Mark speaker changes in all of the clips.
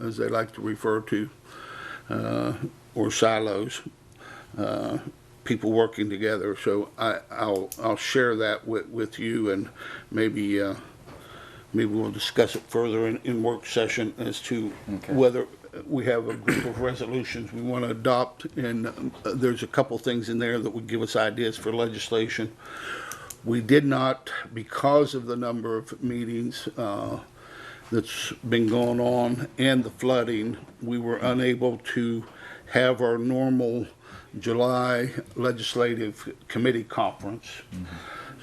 Speaker 1: as they like to refer to, uh, or silos, uh, people working together. So I, I'll, I'll share that with, with you and maybe, uh, maybe we'll discuss it further in, in work session as to
Speaker 2: Okay.
Speaker 1: whether we have a group of resolutions we want to adopt. And um, there's a couple things in there that would give us ideas for legislation. We did not, because of the number of meetings uh, that's been going on and the flooding, we were unable to have our normal July legislative committee conference.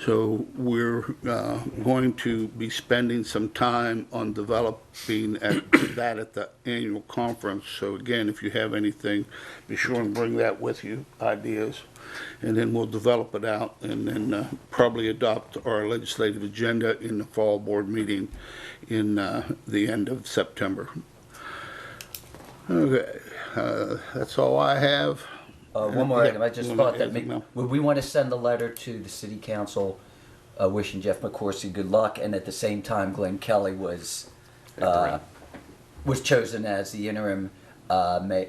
Speaker 1: So we're uh, going to be spending some time on developing at- that at the annual conference. So again, if you have anything, be sure and bring that with you, ideas. And then we'll develop it out and then uh, probably adopt our legislative agenda in the fall board meeting in uh, the end of September. Okay, uh, that's all I have.
Speaker 2: Uh, one more
Speaker 1: Yeah,
Speaker 2: item, I just
Speaker 1: you wanna
Speaker 2: thought that,
Speaker 1: add
Speaker 2: may-
Speaker 1: something, Mel?
Speaker 2: would we want to send a letter to the city council uh, wishing Jeff McCorsey good luck, and at the same time Glenn Kelly was, uh, was chosen as the interim uh, ma-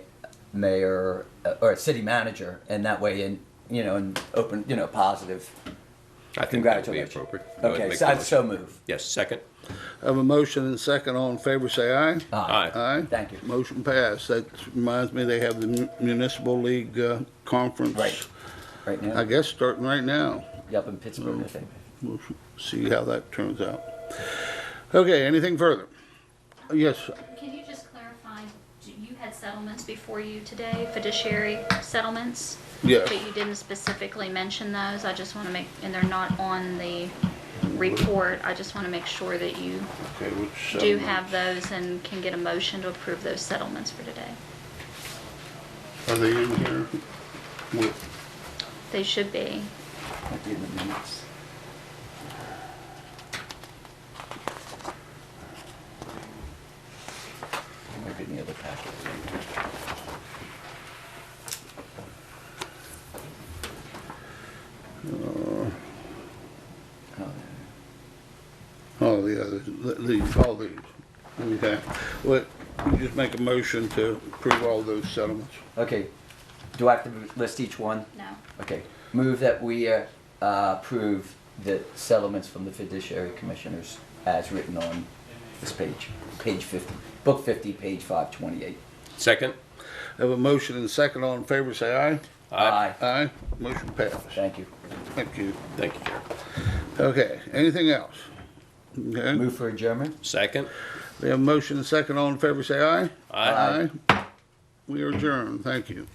Speaker 2: mayor, uh, or city manager, and that way, in, you know, and open, you know, positive
Speaker 3: I think that would be
Speaker 2: congratulations.
Speaker 3: appropriate. I would
Speaker 2: Okay,
Speaker 3: make
Speaker 2: so
Speaker 3: the
Speaker 2: I'd so
Speaker 3: motion.
Speaker 2: move.
Speaker 3: Yes, second.
Speaker 1: I Have a motion and second, all in favor, say aye.
Speaker 2: Aye.
Speaker 1: Aye.
Speaker 2: Thank you.
Speaker 1: Motion passed. That reminds me, they have the mu- municipal league uh, conference.
Speaker 2: Right, right
Speaker 1: I
Speaker 2: now,
Speaker 1: guess starting right now.
Speaker 2: up in Pittsburgh, I think.
Speaker 1: We'll see how that turns out. Okay, anything further? Yes,
Speaker 4: Can you just clarify, do- you had settlements before you today, fiduciary settlements?
Speaker 1: Yeah.
Speaker 4: But you didn't specifically mention those, I just want to make, and they're not on the report, I just want to make sure that you
Speaker 1: okay, which. um,
Speaker 4: do have those and can get a motion to approve those settlements for today.
Speaker 1: Are they in here? Wait,
Speaker 4: They should be,
Speaker 2: Might be in the minutes. Might be in the other packet. Oh,
Speaker 1: Oh, the others, the- these, all these. Okay, well, you just make a motion to approve all those settlements.
Speaker 2: no. Okay, do I have to list each one?
Speaker 4: no.
Speaker 2: Okay, move that we uh, uh, approve the settlements from the fiduciary commissioners as written on this page, page 50, book 50, page 528.
Speaker 3: Second.
Speaker 1: I Have a motion and second, all in favor, say aye.
Speaker 2: Aye.
Speaker 1: Aye, motion passed.
Speaker 2: Thank you.
Speaker 1: Thank you.
Speaker 3: Thank you, Chair.
Speaker 1: Okay, anything else? Okay,
Speaker 2: Move for adjournment?
Speaker 3: Second.
Speaker 1: we have a motion and second, all in favor, say aye.
Speaker 3: Aye.
Speaker 1: Aye. We are adjourned, thank you.